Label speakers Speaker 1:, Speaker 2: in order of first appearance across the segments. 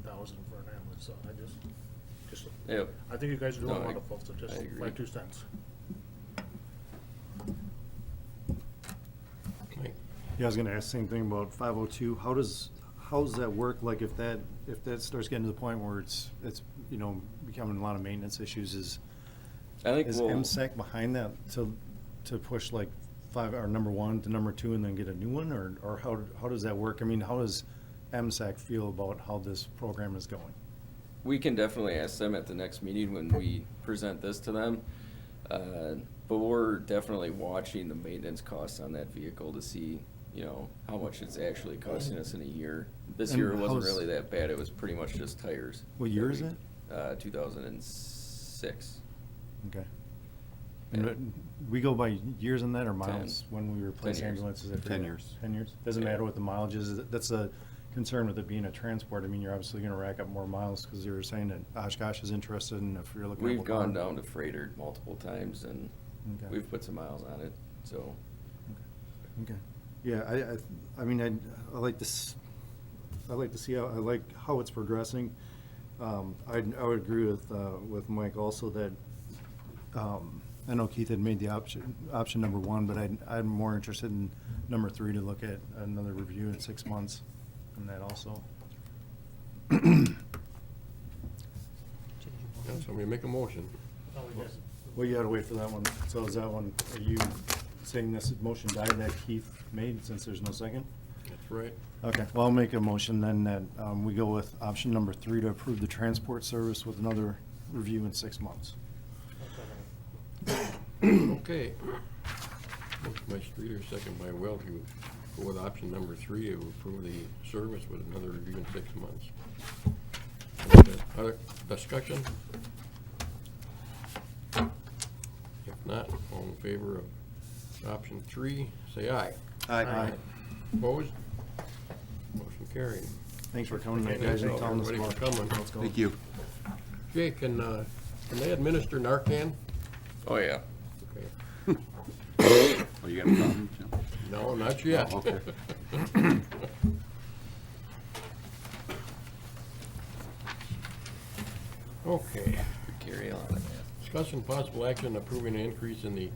Speaker 1: thousand for an ambulance, so I just, just,
Speaker 2: Yep.
Speaker 1: I think you guys are
Speaker 2: No,
Speaker 1: doing
Speaker 2: I-
Speaker 1: wonderful, so just
Speaker 2: I agree.
Speaker 1: my two cents.
Speaker 3: Yeah, I was gonna ask the same thing about five oh two. How does, how does that work? Like if that, if that starts getting to the point where it's, it's, you know, becoming a lot of maintenance issues is,
Speaker 2: I think
Speaker 3: is
Speaker 2: we'll,
Speaker 3: MSAC behind that to, to push like five, or number one to number two and then get a new one? Or, or how, how does that work? I mean, how does MSAC feel about how this program is going?
Speaker 2: we can definitely ask them at the next meeting when we present this to them. Uh, But we're definitely watching the maintenance costs on that vehicle to see, you know, how much it's actually costing us in a year. This
Speaker 3: And
Speaker 2: year it wasn't
Speaker 3: how's-
Speaker 2: really that bad. It was pretty much just tires.
Speaker 3: What year
Speaker 2: that
Speaker 3: is
Speaker 2: we-
Speaker 3: it?
Speaker 2: Uh, two thousand and six.
Speaker 3: Okay. And but we go by years on that or miles
Speaker 2: Ten.
Speaker 3: when we replace
Speaker 2: Ten years.
Speaker 3: ambulances? I
Speaker 4: Ten
Speaker 3: forget.
Speaker 4: years.
Speaker 3: Ten years? Doesn't
Speaker 2: Yeah.
Speaker 3: matter what the mileage is. That's a concern with it being a transport. I mean, you're obviously gonna rack up more miles because you were saying that Oshkosh is interested and if you're looking. at
Speaker 2: We've gone
Speaker 3: Waupun-
Speaker 2: down to freighter multiple times and
Speaker 3: Okay.
Speaker 2: we've put some miles on it, so.
Speaker 3: Okay. Yeah, I, I, I mean, I, I like this, I like to see how, I like how it's progressing. Um, I, I would agree with, uh, with Mike also that, um, I know Keith had made the option, option number one, but I, I'm more interested in number three to look at another review in six months on that also.
Speaker 4: Yeah, so I'm gonna make a motion.
Speaker 3: Well, you gotta wait for that one. So is that one, are you saying this motion died that Keith made since there's no second?
Speaker 4: That's right.
Speaker 3: Okay, well, I'll make a motion then that um, we go with option number three to approve the transport service with another review in six months.
Speaker 4: Okay. Motion by Streeter, second by Welch, to go with option number three, to approve the service with another review in six months. Other discussion? If not, all in favor of option three, say aye.
Speaker 3: Aye.
Speaker 4: Opposed? Motion carried.
Speaker 3: Thanks for coming, tonight, guys, and telling us
Speaker 4: Everybody
Speaker 3: more.
Speaker 4: for coming.
Speaker 3: Let's go.
Speaker 5: you.
Speaker 4: Jay, can, uh, can they administer Narcan?
Speaker 2: Oh, yeah.
Speaker 4: Okay.
Speaker 5: Oh, you got a problem? Jim?
Speaker 4: No, not yet.
Speaker 5: Oh, okay.
Speaker 4: Okay.
Speaker 2: Carry on.
Speaker 4: Discussion possible action approving an increase in the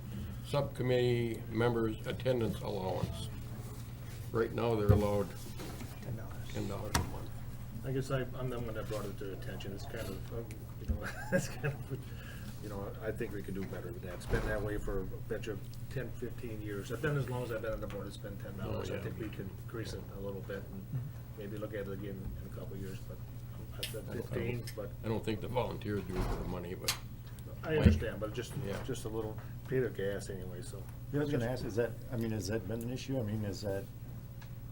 Speaker 4: subcommittee members' attendance allowance. Right now, they're allowed
Speaker 1: Ten dollars.
Speaker 4: ten dollars a month.
Speaker 1: I guess I, I'm the one that brought it to attention, it's kind of, um, you know, that's kind of, you know, I think we could do better with that. It's been that way for, I bet you, ten, fifteen years. I've been, as long as I've been on the board, it's been ten dollars.
Speaker 4: Oh,
Speaker 1: I
Speaker 4: yeah.
Speaker 1: think we could increase it a little bit and maybe look at it again in a couple of years, but I've said fifteen, but
Speaker 4: I don't think the volunteers do it for the money, but
Speaker 1: I understand, but just,
Speaker 4: Yeah.
Speaker 1: just a little, pay their gas anyway, so.
Speaker 3: Yeah, I was gonna ask, is that, I mean, has that been an issue? I mean, is that,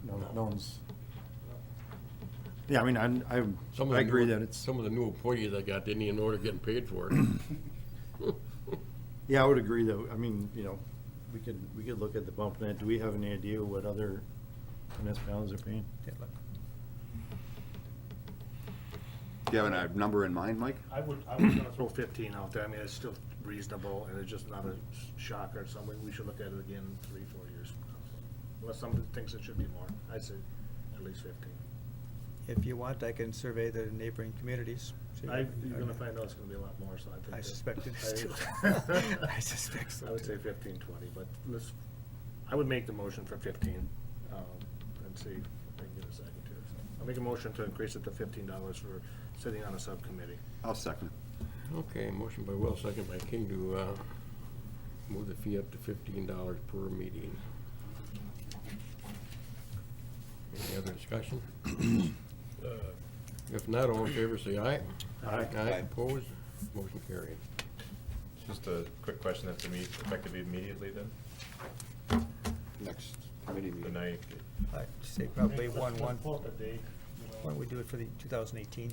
Speaker 3: no, no one's? Yeah, I mean, I'm, I'm-
Speaker 4: some of
Speaker 3: I
Speaker 4: the.
Speaker 3: agree
Speaker 4: new-
Speaker 3: that it's,
Speaker 4: Some of the new employees I got didn't even know they're getting paid for it.
Speaker 3: yeah, I would agree though. I mean, you know, we could, we could look at the bump net. Do we have any idea what other municipalities are paying?
Speaker 5: Do you have a number in mind, Mike?
Speaker 1: I would, I was gonna throw fifteen out there, I mean, it's still reasonable, and it's just not a shocker, it's something we should look at it again in three, four years. from now. Unless somebody thinks it should be more, I say at least fifteen.
Speaker 6: If you want, I can survey the neighboring communities. see
Speaker 1: I,
Speaker 6: if-
Speaker 1: you're gonna find out it's gonna be a lot more, so I think.
Speaker 6: I
Speaker 1: that-
Speaker 6: suspect it is too.
Speaker 1: I-
Speaker 6: I suspect so,
Speaker 1: I would say
Speaker 6: too.
Speaker 1: fifteen, twenty, but let's, I would make the motion for fifteen, um, and see if I can get a second here, so. I'll make a motion to increase it to fifteen dollars for sitting on a subcommittee.
Speaker 5: I'll second.
Speaker 4: Okay, motion by Will, second by King to uh, move the fee up to fifteen dollars per meeting. Any other discussion?
Speaker 7: Uh,
Speaker 4: If not, all in favor, say aye.
Speaker 3: Aye.
Speaker 4: Aye, opposed, motion carried.
Speaker 7: Just a quick question, that's imme- effective immediately then,
Speaker 5: Next committee
Speaker 7: the night,
Speaker 6: I'd say probably one, one, why
Speaker 1: one.
Speaker 6: don't we do it for the 2018?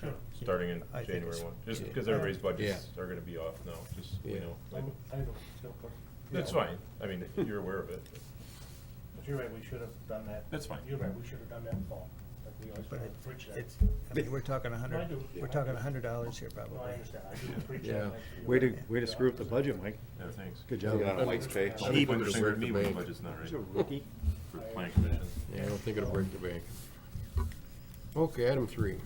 Speaker 1: Sure.
Speaker 7: starting in
Speaker 6: I think
Speaker 7: January
Speaker 6: it's-
Speaker 7: one? Just
Speaker 4: yeah.
Speaker 7: because everybody's budgets
Speaker 4: Yeah.
Speaker 7: are gonna be off now, just, so
Speaker 4: Yeah.
Speaker 7: you know.
Speaker 1: I'm- I don't, no problem.
Speaker 7: That's fine, I mean, you're aware of it.
Speaker 1: But you're right, we should have done that.
Speaker 7: That's fine.
Speaker 1: You're right, we should have done that in fall, like we always
Speaker 6: But
Speaker 1: try to
Speaker 6: it-
Speaker 1: preach that.
Speaker 6: It's, I mean, we're talking a
Speaker 1: No, I
Speaker 6: 100,
Speaker 1: do.
Speaker 6: we're talking a $100 here probably.
Speaker 1: No, I understand, I do preach that.
Speaker 4: Yeah.
Speaker 1: like, uh, you're
Speaker 3: Way to,
Speaker 1: right.
Speaker 3: way to screw up the budget, Mike.
Speaker 7: Yeah, thanks.
Speaker 3: Good job.
Speaker 5: Mike's pay.
Speaker 7: Don't
Speaker 4: He
Speaker 7: point
Speaker 4: would've
Speaker 7: the finger at
Speaker 4: served
Speaker 7: me
Speaker 4: the
Speaker 7: when the
Speaker 4: bank.
Speaker 7: budget's not right.
Speaker 3: rookie.
Speaker 7: For the planning commission.
Speaker 4: Yeah, I don't think it'll break the bank. Okay, item three.